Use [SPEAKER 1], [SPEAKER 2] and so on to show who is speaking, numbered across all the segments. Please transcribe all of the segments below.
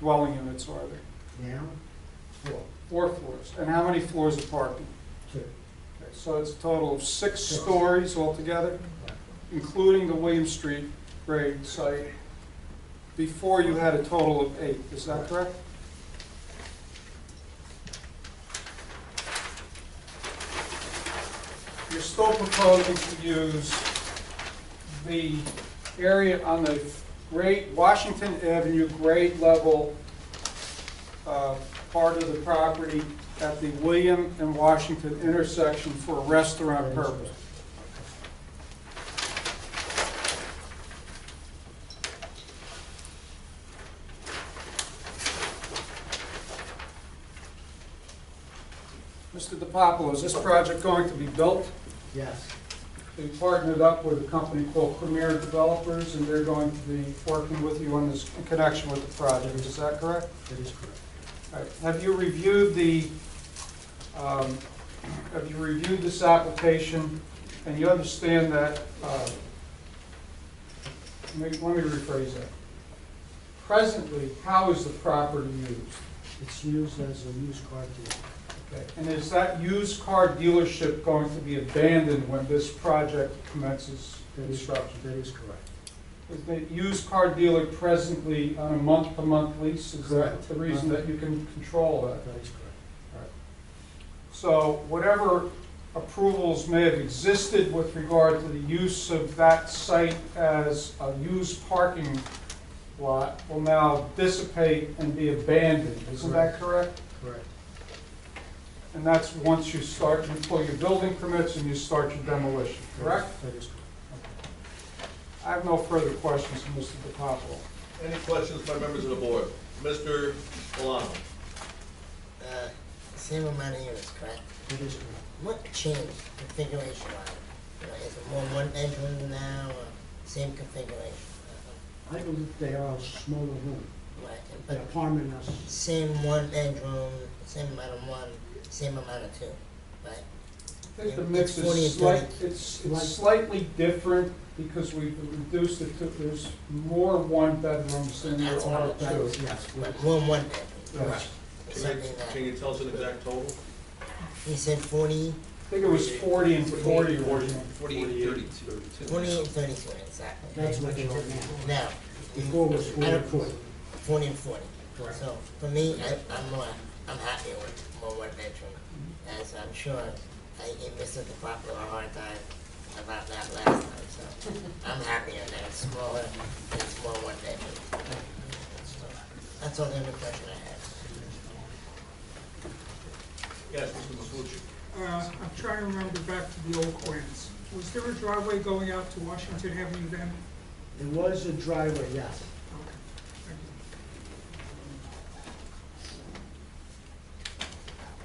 [SPEAKER 1] dwelling units are there?
[SPEAKER 2] Now, four,
[SPEAKER 1] Four floors. And how many floors of parking?
[SPEAKER 2] two.
[SPEAKER 1] Okay, So it's a total of six
[SPEAKER 2] Six.
[SPEAKER 1] stories altogether, including the William Street grade site. Before you had a total of eight, is that correct? You're still proposing to use the area on the grade, Washington Avenue grade level uh, part of the property at the William and Washington intersection for restaurant purpose. Mr. DiPapolo, is this project going to be built?
[SPEAKER 2] Yes,
[SPEAKER 1] We partnered up with a company called Premier Developers, and they're going to be working with you on this, in connection with the project, is that correct?
[SPEAKER 2] that is correct.
[SPEAKER 1] All right, Have you reviewed the, um, have you reviewed this application, and you understand that, uh, let me let me rephrase that. Presently, how is the property used?
[SPEAKER 2] It's used as a used car dealer.
[SPEAKER 1] Okay, And is that used car dealership going to be abandoned when this project commences
[SPEAKER 2] That is,
[SPEAKER 1] construction?
[SPEAKER 2] that is correct.
[SPEAKER 1] Is the used car dealer presently on a month-to-month lease? Is that
[SPEAKER 2] Correct.
[SPEAKER 1] the reason that you can control that?
[SPEAKER 2] That is correct.
[SPEAKER 1] So whatever approvals may have existed with regard to the use of that site as a used parking lot will now dissipate and be abandoned, isn't that correct?
[SPEAKER 2] Correct.
[SPEAKER 1] And that's once you start, you pull your building permits and you start your demolition,
[SPEAKER 2] That is-
[SPEAKER 1] correct?
[SPEAKER 2] That is correct.
[SPEAKER 1] I have no further questions for Mr. DiPapolo.
[SPEAKER 3] Any questions by members of the board? Mr. Milano?
[SPEAKER 4] Uh, same amount of units, correct?
[SPEAKER 2] That is correct.
[SPEAKER 4] What changed configuration wise? You know, is it more one bedroom now or same configuration?
[SPEAKER 2] I believe they are a smaller room.
[SPEAKER 4] Uh, Right,
[SPEAKER 2] The
[SPEAKER 4] but
[SPEAKER 2] apartment is,
[SPEAKER 4] same one bedroom, same amount of one, same amount of two, right?
[SPEAKER 1] I think the mix
[SPEAKER 4] Forty and
[SPEAKER 1] is slight,
[SPEAKER 4] thirty.
[SPEAKER 1] it's it's slightly different because we've reduced it to, there's more one-bedrooms than there
[SPEAKER 4] That's what
[SPEAKER 1] are
[SPEAKER 4] I'm
[SPEAKER 2] that
[SPEAKER 1] two.
[SPEAKER 2] is, yes. we-
[SPEAKER 4] But more one bedroom,
[SPEAKER 1] Yes.
[SPEAKER 4] It's
[SPEAKER 3] Can you,
[SPEAKER 4] something
[SPEAKER 3] can
[SPEAKER 4] that,
[SPEAKER 3] you tell us an exact total?
[SPEAKER 4] he said forty,
[SPEAKER 1] I think it was forty and forty originally.
[SPEAKER 3] Forty-eight, thirty-two.
[SPEAKER 4] twenty and thirty-two, exactly.
[SPEAKER 2] That's what they are now.
[SPEAKER 4] Now,
[SPEAKER 2] Before was
[SPEAKER 4] I don't-
[SPEAKER 2] forty-four.
[SPEAKER 4] forty and forty.
[SPEAKER 2] Correct.
[SPEAKER 4] So for me, I, I'm more, I'm happier with more one bedroom, as I'm sure I gave Mr. DePapo a hard time about that last time, so I'm happier that it's smaller, and it's more one bedroom. So, That's all the other question I have.
[SPEAKER 3] Yes, Mr. Masucci.
[SPEAKER 5] Uh, I'm trying to remember back to the old plans. Was there a driveway going out to Washington Avenue then?
[SPEAKER 2] It was a driveway, yes.
[SPEAKER 5] Okay, thank you.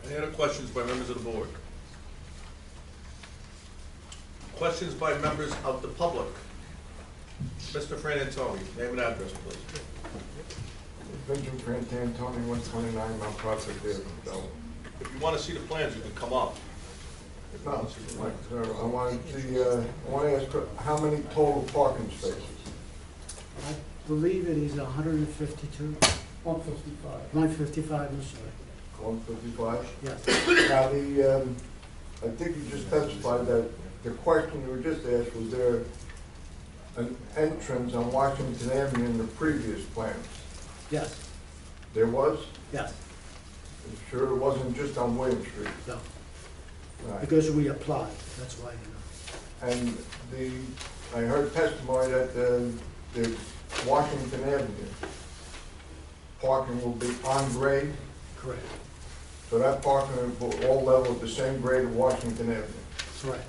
[SPEAKER 3] Any other questions by members of the board? Questions by members of the public? Mr. Fran Antoni, name and address, please.
[SPEAKER 6] Benjamin Grant Antoni, one twenty-nine Mount Prospect Avenue, Belleville.
[SPEAKER 3] If you want to see the plans, you can come up.
[SPEAKER 6] No, like, uh, I wanted to, uh, I want to ask, how many total parking spaces?
[SPEAKER 2] I believe it is hundred and fifty-two,
[SPEAKER 1] One fifty-five.
[SPEAKER 2] one fifty-five, I'm sorry.
[SPEAKER 6] One fifty-five?
[SPEAKER 2] Yes,
[SPEAKER 6] Now, the, um, I think you just testified that the question you were just asked, was there an entrance on Washington Avenue in the previous plans?
[SPEAKER 2] yes,
[SPEAKER 6] There was?
[SPEAKER 2] yes,
[SPEAKER 6] I'm Sure, it wasn't just on William Street?
[SPEAKER 2] no.
[SPEAKER 6] Right.
[SPEAKER 2] Because we applied, that's why, you know.
[SPEAKER 6] And the, I heard testimony that the, the Washington Avenue parking will be on grade,
[SPEAKER 2] Correct,
[SPEAKER 6] so that parking will be all level at the same grade of Washington Avenue.
[SPEAKER 2] correct.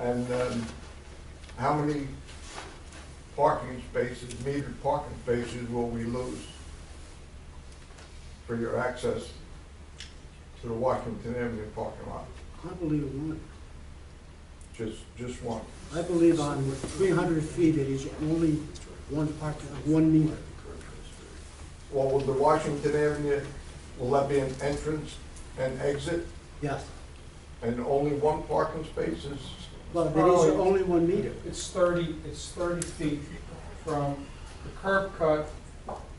[SPEAKER 6] And, um, how many parking spaces, metered parking spaces will we lose for your access to the Washington Avenue parking lot?
[SPEAKER 2] I believe one.
[SPEAKER 6] Just, just one.
[SPEAKER 2] I believe on three hundred feet, it is only one part, one meter.
[SPEAKER 6] Well, will the Washington Avenue, will that be an entrance and exit,
[SPEAKER 2] Yes,
[SPEAKER 6] and only one parking space is?
[SPEAKER 2] well, there is only one meter.
[SPEAKER 1] It's thirty, it's thirty feet from the curb cut